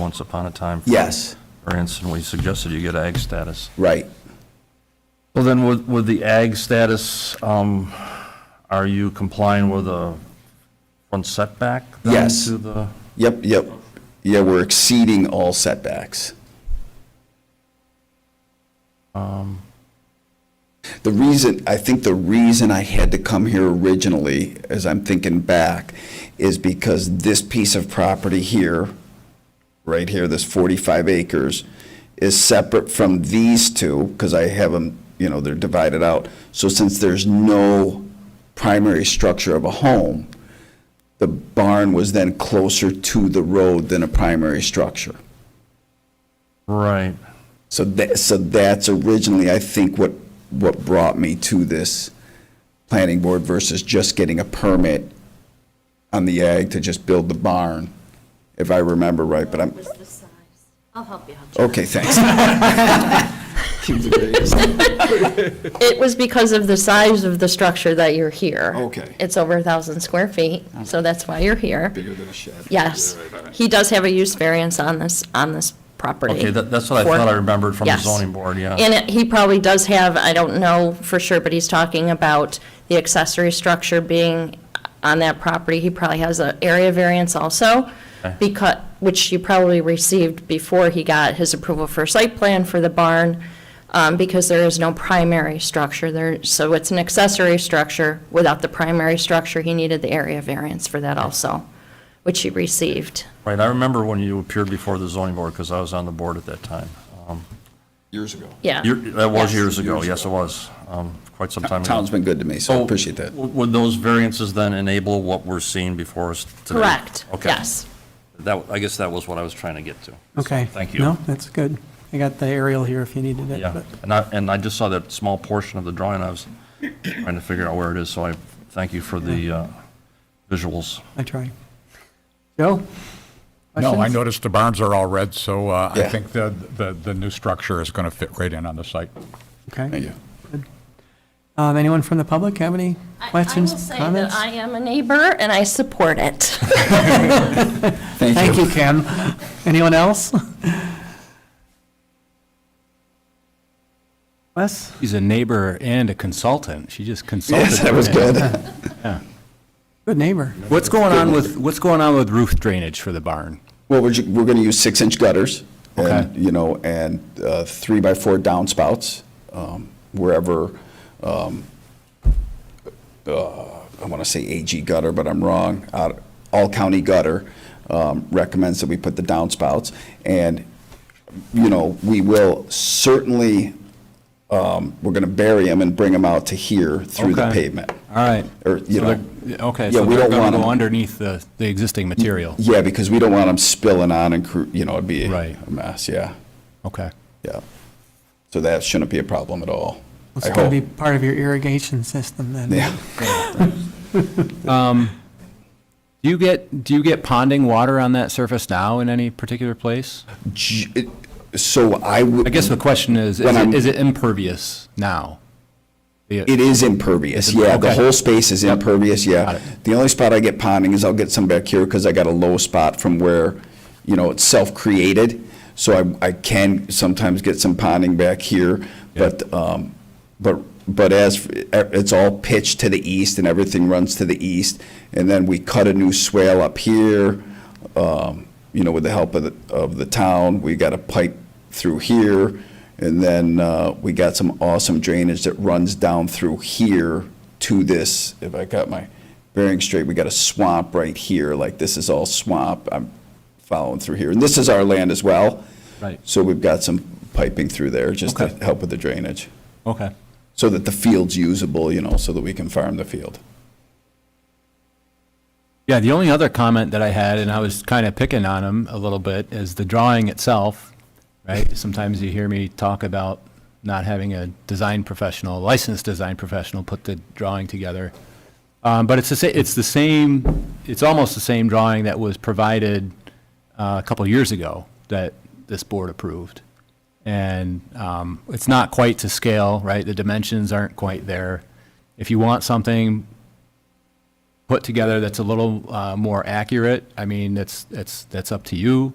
once upon a time. for Yes, instance, we suggested you get ag status. right. Well, then, with, with the ag status, um, are you complying with a front setback? then Yes. To the, Yep, yep. Yeah, we're exceeding all setbacks. The reason, I think the reason I had to come here originally, as I'm thinking back, is because this piece of property here, right here, this 45 acres, is separate from these two, because I have them, you know, they're divided out. So since there's no primary structure of a home, the barn was then closer to the road than a primary structure. right. So that, so that's originally, I think, what, what brought me to this planning board versus just getting a permit on the ag to just build the barn, if I remember right, but I'm, was the size. I'll help you out. okay, thanks. It was because of the size of the structure that you're here. Okay. It's over a thousand square feet, so that's why you're here. Bigger than a shed. Yes. He does have a use variance on this, on this property. Okay, that- that's what I For- thought I remembered from the Yes. zoning board, yeah. And it- he probably does have, I don't know for sure, but he's talking about the accessory structure being on that property. He probably has an area variance also, Okay. because, which you probably received before he got his approval for site plan for the barn, um, because there is no primary structure there. So it's an accessory structure. Without the primary structure, he needed the area variance for that also, which he received. Right, I remember when you appeared before the zoning board, because I was on the board at that time. Um, Years ago. Yeah. year- That was Yes. years ago, Years yes, it was, um, quite some time ago. Town's been good to me, so I So, appreciate that. w- Would those variances then enable what we're seeing before us today? Correct, Okay. yes. That, I guess that was what I was trying to get to. Okay. Thank you. No, that's good. I got the aerial here if you needed it. Yeah, but- and I, and I just saw that small portion of the drawing, I was trying to figure out where it is, so I thank you for the uh, visuals. I try. Joe? No, I Questions? noticed the barns are all red, so uh, I Yeah. think the, the, the new structure is going to fit right in on the site. Thank Okay. you. Um, Anyone from the public have any questions, I will say that comments? I am a neighbor and I support it. Thank you, Ken. Anyone else? Wes? She's a neighbor and a consultant. She just consulted. Yes, that was good. Good neighbor. What's going on with, what's going on with roof drainage for the barn? Well, we're, ju- we're gonna use six-inch gutters. and, Okay. You know, and uh, three-by-four downspouts, um, wherever, um, uh, I want to say AG gutter, but I'm wrong. Out- All County Gutter um, recommends that we put the downspouts. And, you know, we will certainly, um, we're gonna bury them and bring them out to here through the Okay. pavement. All right. Or, Er, you So know. they're- Okay, Yeah, so we they're don't going want to 'em- go underneath the, the existing material. Yeah, because we don't want them spilling on and, cr- you know, it'd be Right. a mess, yeah. Okay. Yeah. So that shouldn't be a problem at all. It's I going to be hope. part of your irrigation system then. Yeah. Do you get, do you get ponding water on that surface now in any particular place? J- it- So I would. I guess the question is, When is I'm- it, is it impervious now? The- It is impervious, yeah. The okay. whole space is impervious, Got yeah. it. The only spot I get ponding is I'll get some back here because I got a low spot from where, you know, it's self-created. So I, I can sometimes get some ponding back here, but, um, but, but as, it's all pitched to the east and everything runs to the east. And then we cut a new swale up here, um, you know, with the help of, the of the town. We got a pipe through here. And then uh, we got some awesome drainage that runs down through here to this, if I got my bearing straight, we got a swamp right here, like this is all swamp, I'm following through here. And this is our land as well. Right. So we've got some piping through there, just to Okay. help with the drainage, Okay. so that the field's usable, you know, so that we can farm the field. Yeah, the only other comment that I had, and I was kind of picking on him a little bit, is the drawing itself, right? Sometimes you hear me talk about not having a design professional, licensed design professional, put the drawing together. Um, but it's the same, it's the same, it's almost the same drawing that was provided uh, a couple years ago that this board approved. And um, it's not quite to scale, right? The dimensions aren't quite there. If you want something put together that's a little uh, more accurate, I mean, that's, that's, that's up to you.